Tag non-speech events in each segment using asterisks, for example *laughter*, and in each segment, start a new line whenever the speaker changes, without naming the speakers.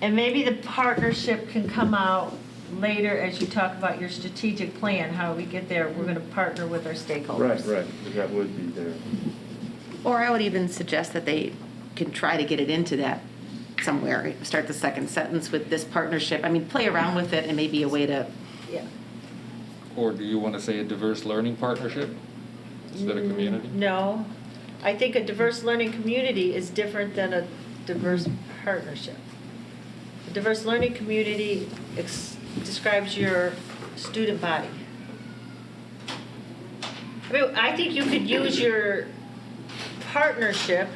And maybe the partnership can come out later as you talk about your strategic plan, how we get there. We're going to partner with our
Right,
stakeholders.
right, that would be there.
Or I would even suggest that they can try to get it into that somewhere, start the second sentence with this partnership. I mean, play around with it and maybe a way to,
Yeah.
Or do you want to say a diverse learning partnership instead of community?
Mm, No, I think a diverse learning community is different than a diverse partnership. A diverse learning community ex- describes your student body. I mean, I think you could use your partnership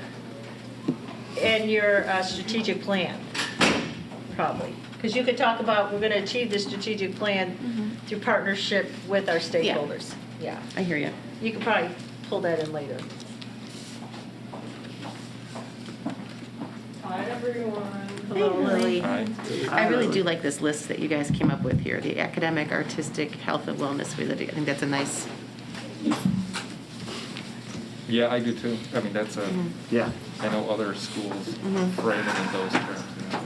and your uh, strategic plan, probably. Because you could talk about, we're going to achieve this strategic plan through partnership with our stakeholders. Yeah.
I hear you.
You could probably pull that in later.
Hi, everyone.
Hello, Lily.
Aye.
I really do like this list that you guys came up with here, the academic, artistic, health and wellness related. I think that's a nice,
Yeah, I do too. I mean, that's a,
Yeah.
I know other schools
Mhm.
frame it in those terms. yeah.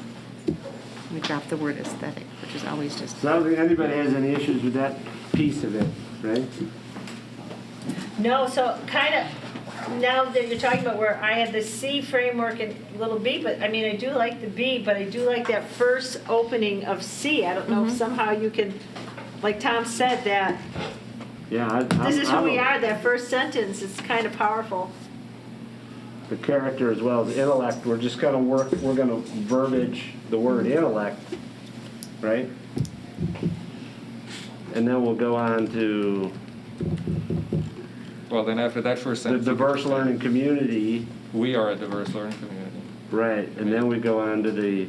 we dropped the word aesthetic, which is always just,
So I don't think anybody has any issues with that piece of it, right?
No, so kind of, now that you're talking about where I had the C framework and little B, but I mean, I do like the B, but I do like that first opening of C. I don't know if somehow you can, like Tom said, that
Yeah. I- I'm-
this is who we
I'm
are, that first sentence is kind of powerful.
a- The character as well as intellect, we're just gonna work, we're gonna verbiage the word intellect, right? And then we'll go on to
Well, then after that first
the
sentence.
diverse learning community,
We are a diverse learning community.
right, and then we go on to the,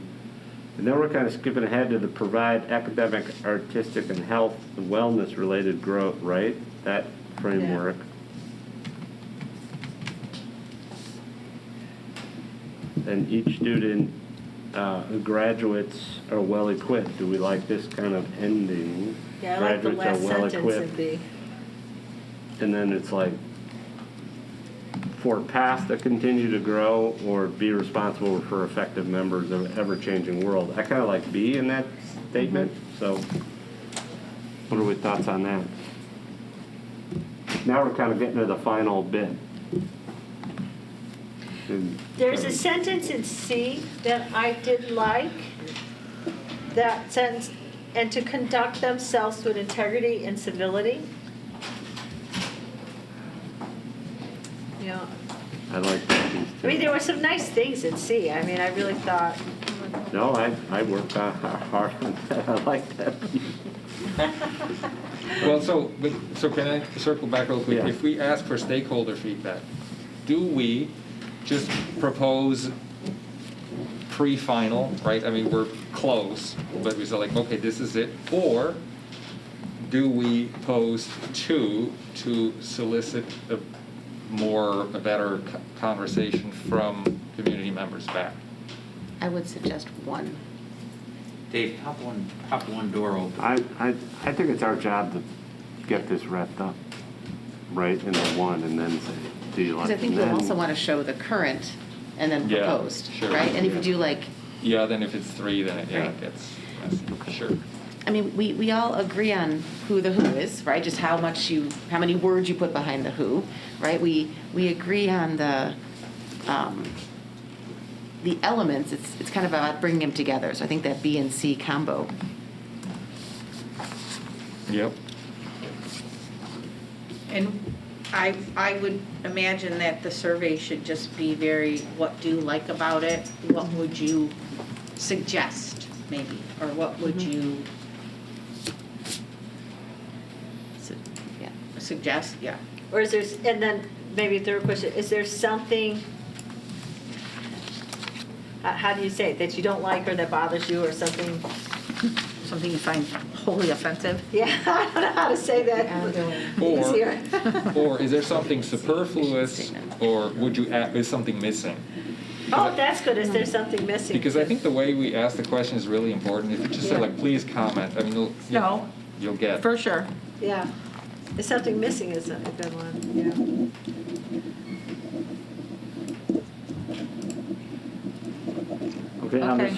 and then we're kinda skipping ahead to the provide academic, artistic, and health, and wellness-related growth, right? That framework. and each student uh, who graduates are well equipped. Do we like this kind of ending?
Yeah, I like the last
Graduates are well
sentence in
equipped,
B.
and then it's like for paths that continue to grow or be responsible for effective members of an ever-changing world. I kind of like B in that statement. So, what are we thoughts on that? Now we're kind of getting to the final bit. And-
There's a sentence in C that I did like, that sentence, and to conduct themselves with integrity and civility. Yeah,
I like that piece
I
too.
mean, there were some nice things in C, I mean, I really thought,
No, I, I worked on- hard *laughs* on that. I like that.
Well, so, but, so can I circle back real quick?
Yeah.
If we ask for stakeholder feedback, do we just propose pre-final, right? I mean, we're close, but we say like, okay, this is it, or do we post two to solicit a more, a better co- conversation from community members back?
I would suggest one.
Dave, pop one, pop one door open.
I, I, I think it's our job to get this wrapped up, right, in the one, and then say, do you like?
Because I think
and
you
then-
also want to show the current and then
Yeah,
proposed,
sure.
right? And if you do like,
Yeah, then if it's three, then it, yeah, it
Right.
gets messy, sure.
I mean, we, we all agree on who the who is, right? Just how much you, how many words you put behind the who, right? We, we agree on the, um, the elements. It's, it's kind of about bringing them together. So I think that B and C combo.
Yep.
And I, I would imagine that the survey should just be very, what do you like about it? What would you suggest, maybe? Or what would you
So, yeah.
suggest, yeah.
or is there, and then maybe a third question, is there something, uh, how do you say it, that you don't like or that bothers you or something? *laughs*
Something you find wholly offensive?
Yeah, I don't know how to say that
Or-
easier. *laughs*
Or is there something superfluous, or would you, add- is something missing?
Oh, that's good, is there something missing?
Because I think the way we ask the question is really important. If you just say like, please comment, I mean, you'll. you'll-
No.
You'll get.
For sure.
Yeah, there's something missing is a a good one,
Okay, on the
Okay.